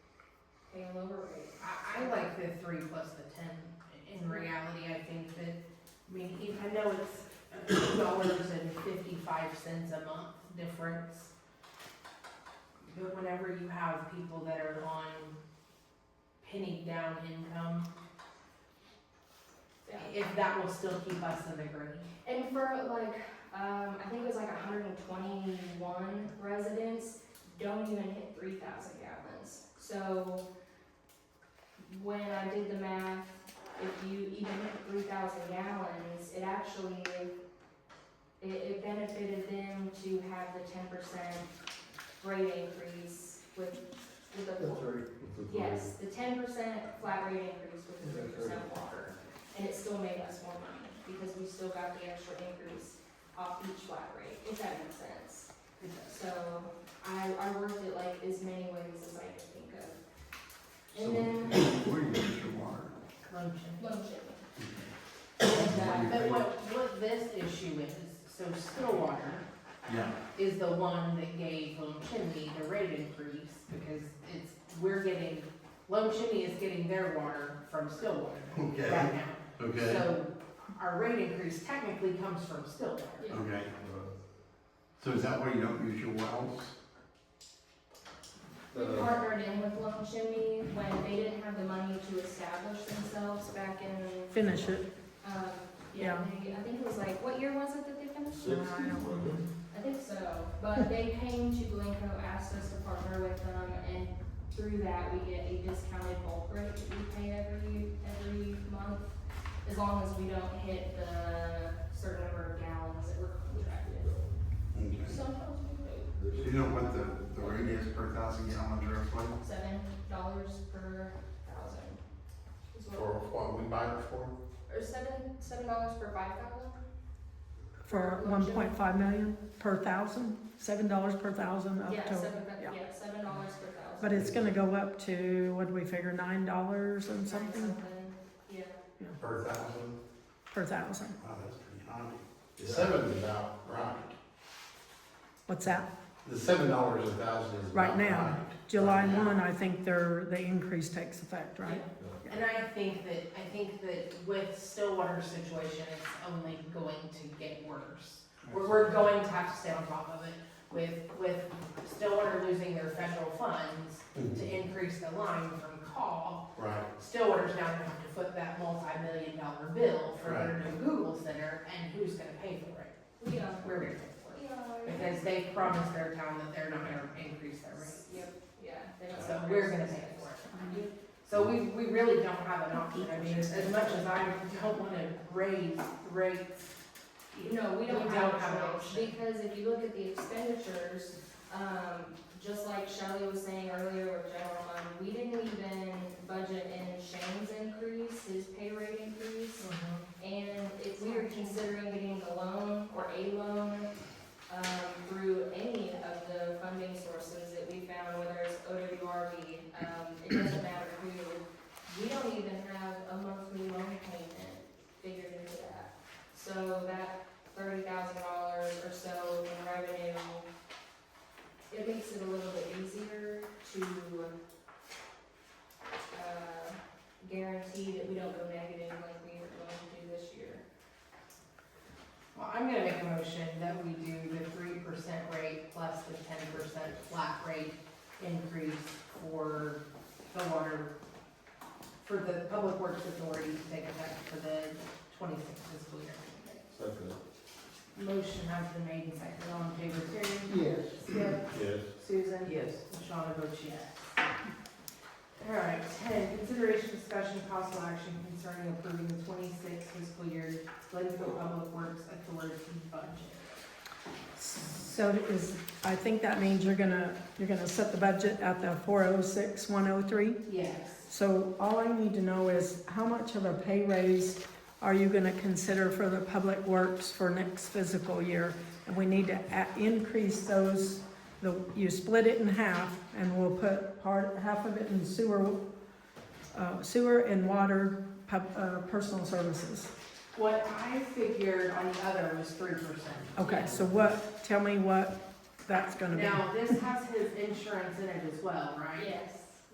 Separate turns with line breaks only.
pay a lower rate.
I, I like the three plus the ten. In reality, I think that, I mean, even- I know it's dollars and fifty-five cents a month difference. But whenever you have people that are on penny down income,
Yeah.
if that will still keep us in the green.
And for like, um, I think it was like hundred and twenty-one residents, don't even hit three thousand gallons. So when I did the math, if you even hit three thousand gallons, it actually, it, it benefited them to have the ten percent rate increase with, with the.
That's right.
Yes, the ten percent flat rate increase with the three percent water, and it still made us more money, because we still got the extra increase off each flat rate, if that makes sense. So, I, I worked it like as many ways as I could think of.
So,
And then,
where do you get your water?
Lotion.
loan ship.
What do
But
you
what, what this issue is, so Stillwater
think? Yeah,
is the one that gave Lone Chimney the rate increase, because it's, we're getting, Lone Chimney is getting their water from Stillwater
okay,
right now.
okay,
So our rate increase technically comes from Stillwater.
okay. So is that why you don't use your wells?
We partnered in with Loan Chimney when they didn't have the money to establish themselves back in,
Finish it.
um, yeah, they- I think it was like, what year was it that they finished?
Uh,
I think so, but they came to Glencoe, asked us to partner with them, and through that, we get a discounted bulk rate that we pay every, every month, as long as we don't hit the certain number of gallons that we're contracted.
Okay.
Sometimes we pay
Do you know what the, the rate is per thousand gallons roughly?
seven dollars per thousand. is what-
For what we buy it for?
Or seven, seven dollars per five thousand?
For one point five million per thousand, seven dollars per thousand up
Yeah,
to,
seven,
yeah.
yeah, seven dollars per thousand.
but it's gonna go up to, what do we figure, nine dollars and something
Yeah.
Per thousand?
per thousand?
Wow, that's pretty high.
The seven's about right.
What's that?
The seven dollars a thousand is
Right
about
now.
right.
July
Right now.
one, I think their, the increase takes effect, right?
And I think that, I think that with Stillwater's situation, it's only going to get worse. We're, we're going to have to stay on top of it with, with Stillwater losing their federal funds to increase the line from call.
Right,
Stillwater's now gonna have to foot that multi-million dollar bill for their new Google center, and who's gonna pay for it?
We are,
We're gonna pay for it.
we are.
Because they promised their town that they're not gonna increase their rates.
Yep, yeah. they don't
So
have
we're
raise
gonna
those
pay
things.
for it.
Um,
So we, we really don't have an option, I mean, as as much as I don't wanna raise rates.
No, we don't
We
have
don't have an
a
option.
choice, because if you look at the expenditures, um, just like Shelley was saying earlier with general fund, we didn't even budget in Shane's increase, his pay rate increase. And if we are considering getting a loan or a loan, um, through any of the funding sources that we found, whether it's OWRB, um, it doesn't matter who, we don't even have a monthly loan payment figured into that. So that thirty thousand dollars or so in revenue, it makes it a little bit easier to, uh, guarantee that we don't go negative like we are going to do this year.
Well, I'm gonna make a motion that we do the three percent rate plus the ten percent flat rate increase for the water, for the Public Works Authority to take effect for the twenty-sixth fiscal year.
second.
Motion has been made and seconded, all in favor, Terry?
Yes.
Skip?
Yes.
Susan? Yes. Shawna votes yes. All right, ten, consideration, discussion, possible action concerning approving the twenty-sixth fiscal year Glencoe Public Works Authority budget.
So is, I think that means you're gonna, you're gonna set the budget at the four oh six, one oh three?
Yes.
So all I need to know is how much of a pay raise are you gonna consider for the public works for next fiscal year? And we need to a- increase those, the, you split it in half and we'll put part, half of it in sewer, uh, sewer and water, pub, uh, personal services.
What I figured on the other was three percent.
Okay, so what, tell me what that's gonna be.
Now, this has his insurance in it as well, right?
Yes.